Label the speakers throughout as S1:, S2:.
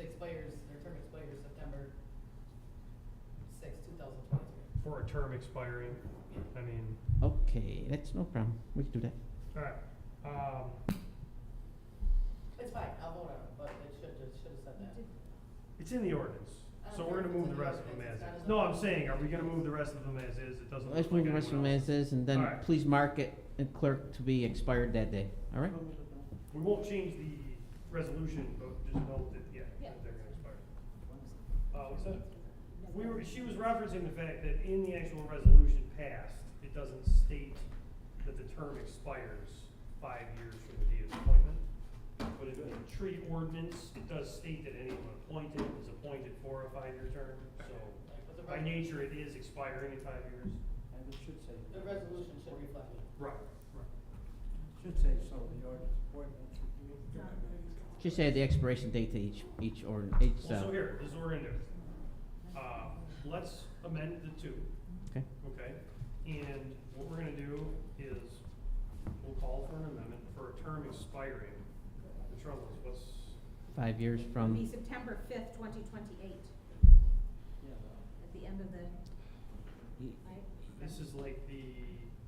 S1: expires, their term expires September sixth, two thousand twenty-three.
S2: for a term expiring, I mean,
S3: Okay, that's no problem. We can do that.
S2: alright, um,
S1: It's fine, I'll vote on it, but it should, it should have said that.
S2: it's in the ordinance, so we're gonna move the rest of them as is. No, I'm saying, are we gonna move the rest of them as is? It doesn't look like
S3: Let's move the rest of them
S2: anyone else.
S3: as is, and then
S2: Alright.
S3: please mark it and clerk to be expired that day, all right?
S2: We won't change the resolution, but just note that, yeah,
S1: Yeah.
S2: that they're gonna expire. Uh, what's that? We were, she was referencing the fact that in the actual resolution passed, it doesn't state that the term expires five years from the date of appointment. But in the tree ordinance, it does state that anyone appointed is appointed for a five-year term, so
S1: Right, but the
S2: by
S1: res-
S2: nature, it is expiring in five years.
S4: And it should say.
S1: The resolution should reflect it.
S2: Right.
S4: Should say so, the ordinance appointment.
S3: Just add the expiration date to each, each ordinance, each,
S2: Well, so
S3: uh,
S2: here, this is what we're gonna do. Uh, let's amend the two.
S3: Okay.
S2: Okay, and what we're gonna do is, we'll call for an amendment for a term expiring. The trouble is, what's,
S3: five years
S5: It'll be
S3: from,
S5: September fifth, twenty twenty-eight,
S4: Yeah.
S5: at the end of the, right?
S2: this is like the,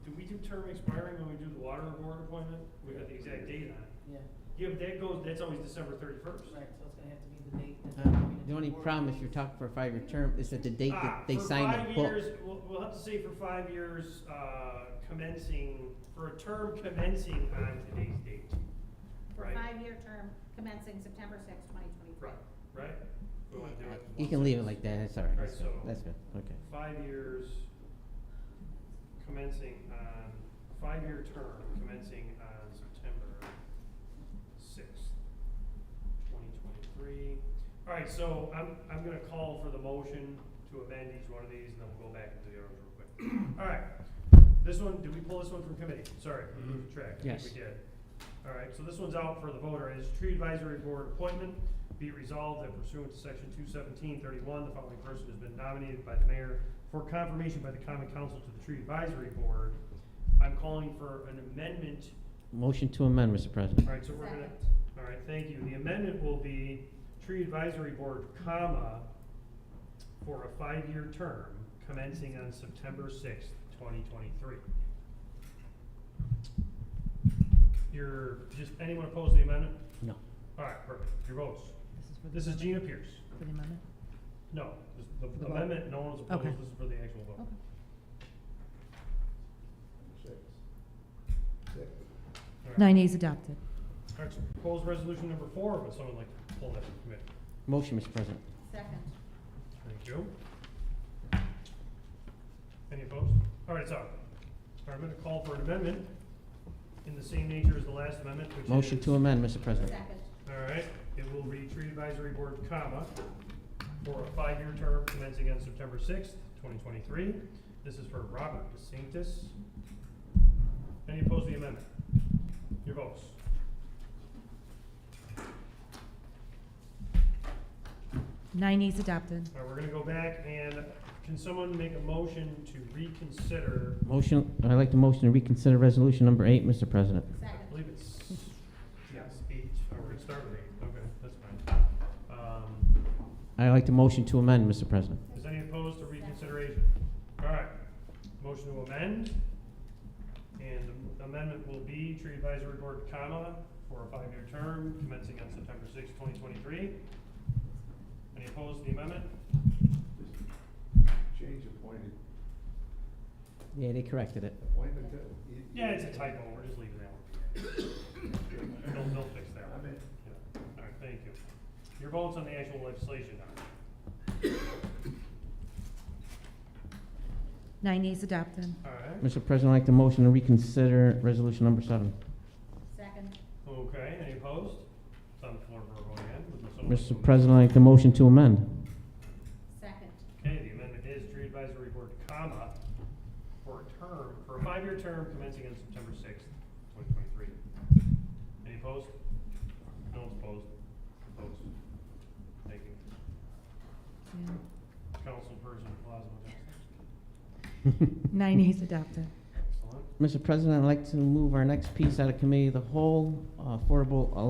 S2: do we do term expiring when we do the water board appointment? We got the exact date on it.
S1: Yeah,
S2: Yeah, but that goes, that's always December thirty-first.
S1: right, so it's gonna have to be the date. that-
S3: uh, the only problem if you're talking for a five-year term is that the date
S2: Ah,
S3: that they
S2: for
S3: sign the
S2: five
S3: book.
S2: years- We'll, we'll have to say for five years, uh, commencing, for a term commencing on today's date.
S5: For
S2: Right.
S5: a five-year term commencing September sixth, twenty twenty-three.
S2: Right, right? We wanna do it
S3: You
S2: one
S3: can leave it
S2: sentence.
S3: like that, that's all right,
S2: Right,
S3: that's good,
S2: so-
S3: that's good, okay.
S2: Five years commencing on, five-year term commencing on September sixth, twenty twenty-three. All right, so I'm, I'm gonna call for the motion to amend each one of these, and then we'll go back into the others real quick. All right, this one, did we pull this one from committee? Sorry, we moved track, I think
S3: Yes.
S2: we did. All right, so this one's out for the voter, is tree advisory board appointment. Be it resolved that pursuant to section two seventeen thirty-one, the following person has been nominated by the mayor for confirmation by the common council to the tree advisory board. I'm calling for an amendment
S3: Motion to amend, Mr. President.
S2: all right, so we're gonna, all right, thank you. The amendment will be tree advisory board, comma, for a five-year term commencing on September sixth, twenty twenty-three. You're, just, anyone opposed to the amendment?
S3: No.
S2: All right, perfect. Your votes. This is Gina Pierce.
S6: For the amendment?
S2: No, this- the
S6: vote?
S2: amendment, no one's opposed.
S6: Okay.
S2: This is for the actual vote.
S6: Okay.
S7: Six. Six.
S2: All right.
S6: Nine A's adopted.
S2: All right, so proposed resolution number four, would someone like to pull that from committee?
S3: Motion, Mr. President.
S5: Second.
S2: Thank you. Any opposed? All right, so, all right, I'm gonna call for an amendment in the same nature as the last amendment, which is.
S3: Motion to amend, Mr. President.
S5: Second.
S2: All right, it will read tree advisory board, comma, for a five-year term commencing on September sixth, twenty twenty-three. This is for Robert DeSantis. Any opposed to the amendment? Your votes.
S6: Nine A's adopted.
S2: All right, we're gonna go back and can someone make a motion to reconsider
S3: Motion, I'd like to motion to reconsider resolution number eight, Mr. President.
S2: I
S5: Second.
S2: believe it's, yes, eight, or we're gonna start with eight, okay, that's fine. Um,
S3: I'd like to motion to amend, Mr. President.
S2: is any opposed to reconsideration? All right, motion to amend, and the amendment will be tree advisory board, comma, for a five-year term commencing on September sixth, twenty twenty-three. Any opposed to the amendment?
S7: Just Change appointed,
S3: Yeah, they corrected it.
S7: appointment to. you-
S2: Yeah, it's a typo, we're just leaving that one. They'll, they'll fix that
S7: I'm
S2: one.
S7: in.
S2: Yeah. All right, thank you. Your votes on the actual legislation now.
S6: Nine A's adopted.
S2: All right.
S3: Mr. President, I'd like to motion to reconsider resolution number seven.
S5: Second.
S2: Okay, any opposed? It's on the floor for a vote again. Would someone like to
S3: Mr.
S2: amend?
S3: President, I'd like to motion to amend.
S5: Second.
S2: Okay, the amendment is tree advisory board, comma, for a term, for a five-year term commencing on September sixth, twenty twenty-three. Any opposed? No one's opposed. Opposed. Thank you.
S6: Yeah.
S2: Councilperson Plasma.
S6: Nine A's adopted.
S2: Excellent.
S3: Mr. President, I'd like to move our next piece out of committee, of the whole uh, affordable